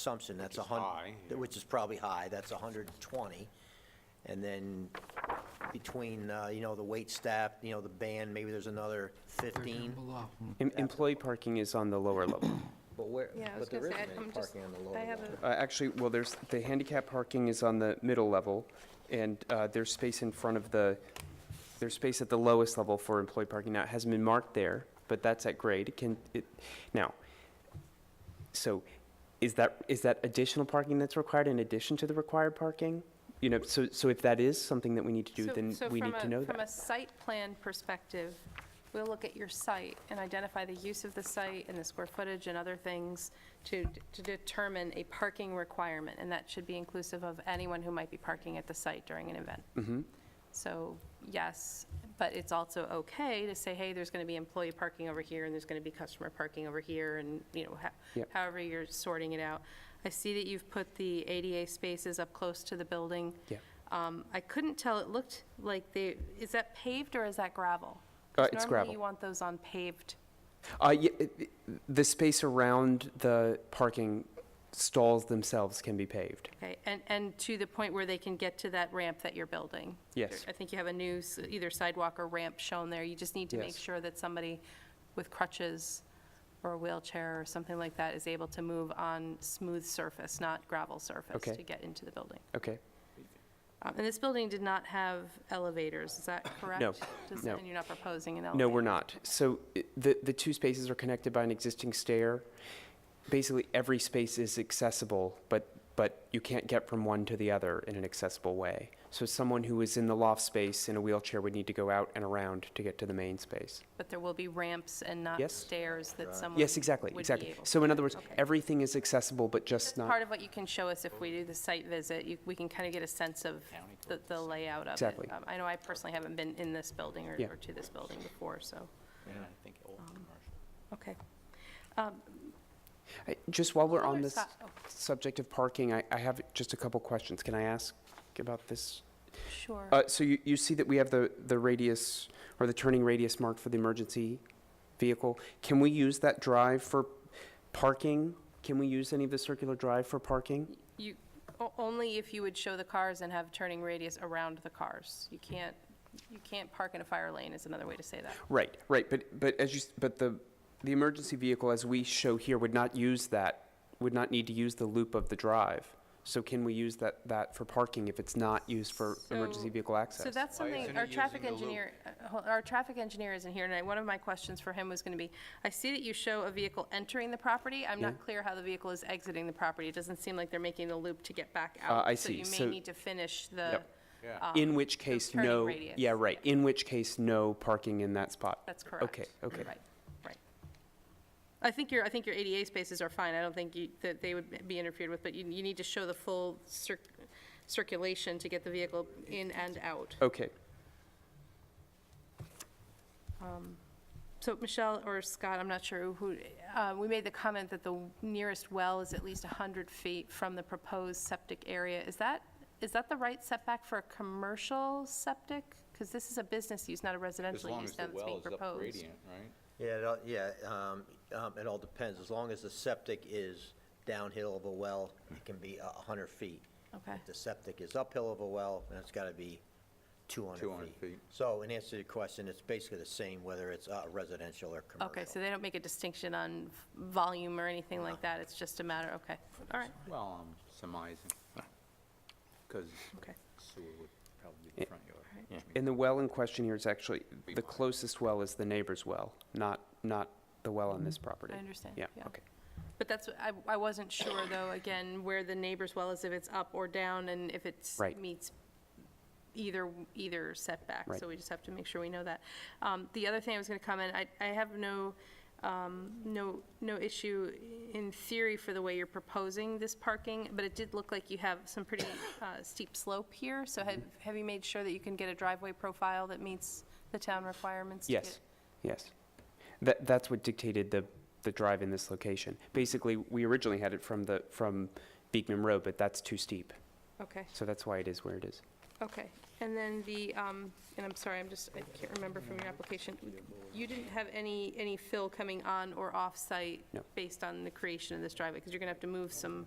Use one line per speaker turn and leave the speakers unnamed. assumption, that's a
Which is high,
hun,
yeah.
which is probably high, that's hundred and twenty. And then between, uh, you know, the wait staff, you know, the band, maybe there's another fifteen,
Em- Employee parking is on the lower level.
but where,
Yeah, I was
but there
gonna
isn't
say, I-
any
I'm just,
parking on the lower
I have
level.
Uh, Actually, well, there's, the handicap parking is on the middle level, and uh, there's space in front of the, there's space at the lowest level for employee parking. Now, it hasn't been marked there, but that's at grade. It Can, it, now, so is that, is that additional parking that's required in addition to the required parking? You know, so, so if that is something that we need to do,
So-
then
so
we
from
need to
a-
know
From a
that.
site plan perspective, we'll look at your site and identify the use of the site and the square footage and other things to, to determine a parking requirement, and that should be inclusive of anyone who might be parking at the site during an event.
Mm-hmm.
So, yes, but it's also okay to say, hey, there's going to be employee parking over here, and there's going to be customer parking over here, and, you know, ho-
Yep.
however you're sorting it out. I see that you've put the ADA spaces up close to the building.
Yeah.
Um, I couldn't tell, it looked like they, is that paved or is that gravel?
Uh,
'Cause
it's gravel.
Normally, you want those on paved.
Uh, yeah, it- it- the space around the parking stalls themselves can be paved.
Okay, and, and to the point where they can get to that ramp that you're building?
Yes.
I think you have a new, s- either sidewalk or ramp shown there, you just need to make
Yes.
sure that somebody with crutches or a wheelchair or something like that is able to move on smooth surface, not gravel surface,
Okay.
to get into the building.
Okay.
Um, And this building did not have elevators, is that correct? Does-
no.
And you're not proposing an elevator?
No, we're not. So i- the, the two spaces are connected by an existing stair. Basically, every space is accessible, but, but you can't get from one to the other in an accessible way. So someone who is in the loft space in a wheelchair would need to go out and around to get to the main space.
But there will be ramps and not
Yes.
stairs that someone
Yes, exactly,
would be
exactly.
able
So
to
in
do.
other words,
Okay.
everything is accessible, but
That's
just
part
not,
of what you can show us if we do the site visit. You- We can kind of get a sense of the- the layout of it.
Exactly.
Um, I know I personally haven't been in this building or
Yeah.
or to this building before, so,
And I think
Um,
old commercial.
okay.
I- just while we're
Other
on this
si- oh,
subject of parking, I, I have just a couple questions. Can I ask about this?
Sure.
Uh, so you, you see that we have the, the radius, or the turning radius marked for the emergency vehicle. Can we use that drive for parking? Can we use any of the circular drive for parking?
You, o- only if you would show the cars and have turning radius around the cars. You can't, you can't park in a fire lane is another way to say that.
Right, right, but, but as you, s- but the, the emergency vehicle, as we show here, would not use that, would not need to use the loop of the drive. So can we use that, that for parking if it's not used for emergency
So-
vehicle access?
So that's something,
isn't
our
he
traffic
using the loop?
engineer, uh, hol- our traffic engineer isn't here tonight. One of my questions for him was going to be, I see that you show a vehicle entering the property. I'm not clear how the vehicle is exiting the property. It doesn't seem like they're making the loop to get back out.
Uh, I see.
So you
So-
may need to finish the,
Yep.
Yeah.
In which case,
turning
no,
radius,
yeah, right, in which case, no parking in that spot.
um, that's correct.
Okay, okay.
Right, right. I think your, I think your ADA spaces are fine. I don't think you- that they would be interfered with, but you, you need to show the full cir- circulation to get the vehicle in and out.
Okay.
So Michelle or Scott, I'm not sure who, uh, we made the comment that the nearest well is at least 100 feet from the proposed septic area. Is that, is that the right setback for a commercial septic? Because this is a business use, not a
As
residential
long
use
as the
now that's
well
being
is up
proposed.
gradient, right?
Yeah, it all, yeah, um, um, it all depends, as long as the septic is downhill of a well, it can be a hundred feet.
Okay.
If the septic is uphill of a well, then it's gotta be two hundred feet.
200 feet.
So in answer to your question, it's basically the same whether it's uh, residential or commercial.
Okay, so they don't make a distinction on volume or anything like that? It's just a matter, okay, all right,
Well, um, I'm surmising, because
okay.
sewer would probably be the front yard.
Yeah.
And the well in question here is actually,
Be
the
mine.
closest well is the neighbor's well, not, not the well on this property.
Mm-hmm. I understand,
Yeah,
yeah.
okay.
But that's, I, I wasn't sure though, again, where the neighbor's well is, if it's up or down and if it's.
Right.
Meets either, either setback.
Right.
So we just have to make sure we know that. Um, the other thing I was gonna comment, I, I have no, um, no, no issue in theory for the way you're proposing this parking, but it did look like you have some pretty, uh, steep slope here. So
Mm-hmm.
have, have you made sure that you can get a driveway profile that meets the town requirements? to
Yes, yes. That, that's what dictated the, the drive in this location. Basically, we originally had it from the, from Beekman Road, but that's too steep.
get- Okay.
So that's why it is where it is.
Okay, and then the, um, and I'm sorry, I'm just, I can't remember from your application. You didn't have any, any fill coming on or off-site
No.
based on the creation of this driveway, because you're gonna have to move some